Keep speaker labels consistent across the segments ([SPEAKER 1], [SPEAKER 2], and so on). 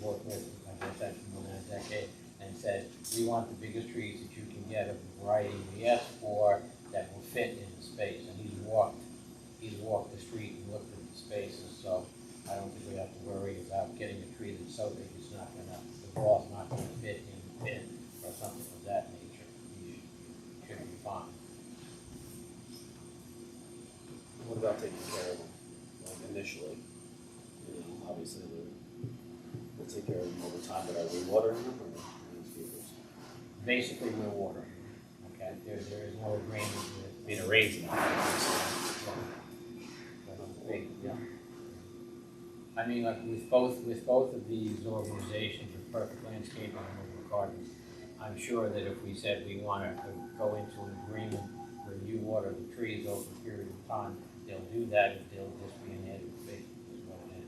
[SPEAKER 1] forthwith to my attention within a decade and said, we want the biggest trees that you can get of the variety we asked for that will fit in the space. And he's walked, he's walked the street and looked at the spaces, so I don't think we have to worry about getting a tree that's so big it's not gonna, the wall's not gonna fit in the pit or something of that nature. You should- should be fine.
[SPEAKER 2] What about taking care of them, like initially? You know, obviously we'll, we'll take care of them over time, but are we watering them or these vehicles?
[SPEAKER 1] Basically, we're watering, okay? There, there is no agreement with.
[SPEAKER 2] I mean, arranging them. obviously.
[SPEAKER 1] Yeah. I mean, like with both, with both of these organizations, with Perfect Landscaping and Woodland Gardens, I'm sure that if we said we wanted to go into an agreement where you water the trees over a period of time, they'll do that, and they'll just be an added fee, is what it is.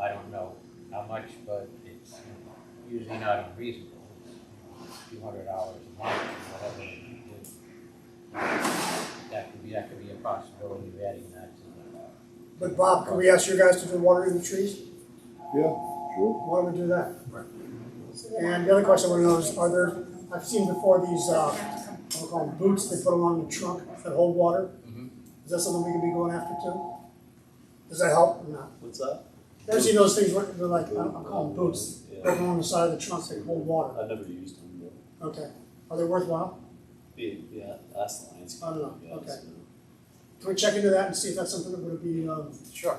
[SPEAKER 1] I don't know how much, but it's usually not unreasonable. Two hundred dollars a month, or whatever you do. That could be, that could be a possibility of adding that to the, uh,
[SPEAKER 3] But Bob, can we ask you guys to do watering the trees?
[SPEAKER 4] Yeah, sure.
[SPEAKER 3] Why don't we do that? And the other question I wanna know is, are there, I've seen before these, uh, what we call them boots, they put them on the trunk that hold water.
[SPEAKER 4] Mm-hmm.
[SPEAKER 1] Mhm.
[SPEAKER 3] Is that something we could be going after too? Does that help or not?
[SPEAKER 2] What's that?
[SPEAKER 3] I've seen those things, where they're like, I am calling boots,
[SPEAKER 2] Yeah,
[SPEAKER 3] put them on the side of the trunk, that hold water.
[SPEAKER 2] I've never used them, but,
[SPEAKER 3] Okay, are they worthwhile?
[SPEAKER 2] yeah, yeah, that's the lines.
[SPEAKER 3] I don't know,
[SPEAKER 2] Yeah,
[SPEAKER 3] okay.
[SPEAKER 2] so-
[SPEAKER 3] Can we check into that and see if that's something that would be, um,
[SPEAKER 5] Sure.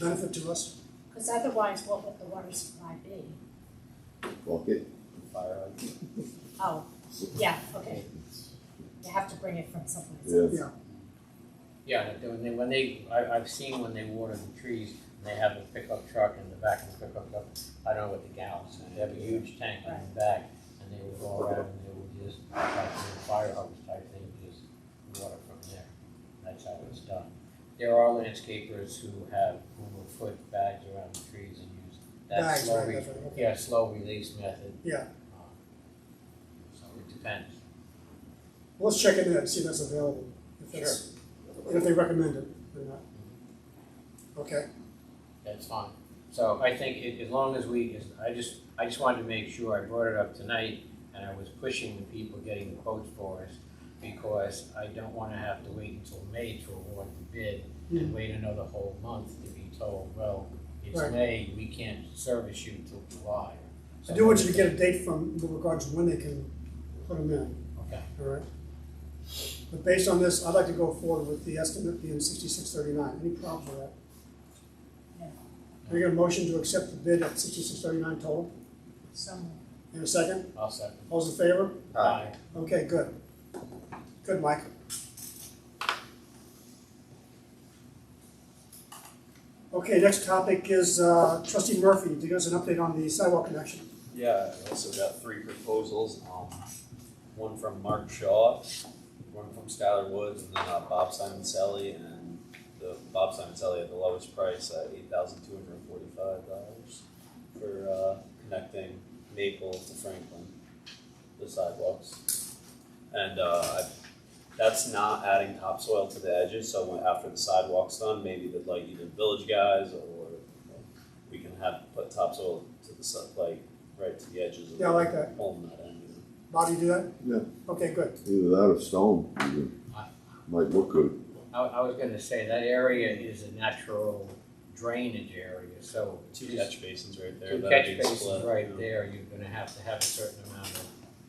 [SPEAKER 3] benefit to us?
[SPEAKER 6] Because otherwise, what would the water supply be?
[SPEAKER 4] Fuck it.
[SPEAKER 2] Fire hydrant.
[SPEAKER 6] Oh, yeah, okay. You have to bring it from someplace.
[SPEAKER 4] Yeah.
[SPEAKER 1] Yeah, and when they, when they, I, I've seen when they water the trees, and they have a pickup truck in the back of the pickup truck, I don't know what the gallons, and they have a huge tank in the back, and they would go around and they would just, like a fire hose type thing, just water from there. That's how it's done. There are landscapers who have, who will put bags around the trees and use that
[SPEAKER 3] Bags,
[SPEAKER 1] slow,
[SPEAKER 3] right,
[SPEAKER 1] re-
[SPEAKER 3] that's right, okay.
[SPEAKER 1] yeah, slow release method.
[SPEAKER 3] Yeah.
[SPEAKER 1] Um, So it depends.
[SPEAKER 3] Well, Let's check into that and see if that's available, if that's, and if they recommend it or not. Okay,
[SPEAKER 1] That's fine. So I think i- as long as we, as- I just, I just wanted to make sure I brought it up tonight and I was pushing the people getting the quotes for us because I don't wanna have to wait until May to award the bid and wait another whole month to be told, well, it's
[SPEAKER 3] Hmm. Right.
[SPEAKER 1] May, we can't service you till July.
[SPEAKER 3] I do want you to get a date from, with regards to when they can put them in,
[SPEAKER 1] Okay,
[SPEAKER 3] all right? But based on this, I'd like to go forward with the estimate being sixty-six thirty-nine, any problems with that?
[SPEAKER 6] No.
[SPEAKER 3] Can I get a motion to accept the bid at sixty-six thirty-nine total?
[SPEAKER 6] So,
[SPEAKER 3] In a second,
[SPEAKER 1] I'll second.
[SPEAKER 3] all's in favor?
[SPEAKER 1] Aye.
[SPEAKER 3] Okay, good. Good, Mike. Okay, next topic is uh, trustee Murphy, to give us an update on the sidewalk connection.
[SPEAKER 2] Yeah, I also got three proposals, um, one from Mark Shaw, one from Skylar Woods, and then uh, Bob Simoncelli, and the Bob Simoncelli at the lowest price at eight thousand two hundred and forty-five dollars for, uh, connecting Maple to Franklin, the sidewalks. And, uh, I, that's not adding topsoil to the edges, so when, after the sidewalk's done, maybe that like either village guys or like, we can have, put topsoil to the side, like, right to the edges of.
[SPEAKER 3] Yeah, I like that.
[SPEAKER 2] Pulling that end, you know.
[SPEAKER 3] Bob, you do that?
[SPEAKER 4] Yeah.
[SPEAKER 3] Okay, good.
[SPEAKER 4] Either that or stone, even. might look good.
[SPEAKER 1] I, I was gonna say that area is a natural drainage area, so.
[SPEAKER 2] two
[SPEAKER 1] just-
[SPEAKER 2] catch basins right there.
[SPEAKER 1] Two
[SPEAKER 2] that'd
[SPEAKER 1] catch
[SPEAKER 2] be
[SPEAKER 1] basins
[SPEAKER 2] split,
[SPEAKER 1] right
[SPEAKER 2] yeah.
[SPEAKER 1] there, you're gonna have to have a certain amount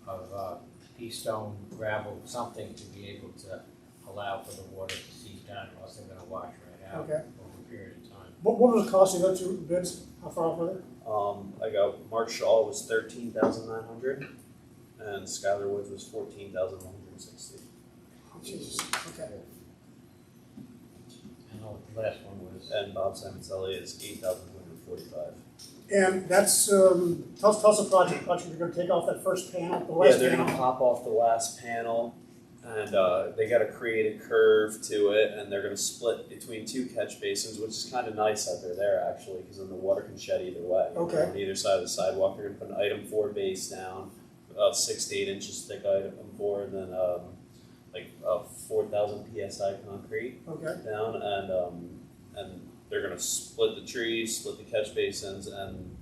[SPEAKER 1] of, of, uh, pea stone, gravel, something to be able to allow for the water to seep down, or else they're gonna wash right out
[SPEAKER 3] Okay.
[SPEAKER 1] over a period of time.
[SPEAKER 3] What, what was the cost of those two bids? How far off were
[SPEAKER 2] Um, I got Mark Shaw was thirteen thousand nine hundred, and Skylar Woods was fourteen thousand one hundred sixty.
[SPEAKER 3] they? Oh, Jesus, okay.
[SPEAKER 1] And the last one was,
[SPEAKER 2] And Bob Simoncelli is eight thousand two hundred forty-five.
[SPEAKER 3] And that's, um, tell us, tell us the project, project you're gonna take off that first panel, the
[SPEAKER 2] Yeah,
[SPEAKER 3] last
[SPEAKER 2] they're gonna
[SPEAKER 3] panel.
[SPEAKER 2] pop off the last panel, and uh, they got to create a curve to it, and they're gonna split between two catch basins, which is kind of nice that they're there actually, because then the water can shed either way.
[SPEAKER 3] Okay.
[SPEAKER 2] On either side of the sidewalk, they're gonna put an item four base down, about six to eight inches thick item four, and then um, like uh, four thousand psi concrete
[SPEAKER 3] Okay,
[SPEAKER 2] down, and um, and they're gonna split the trees, split the catch basins, and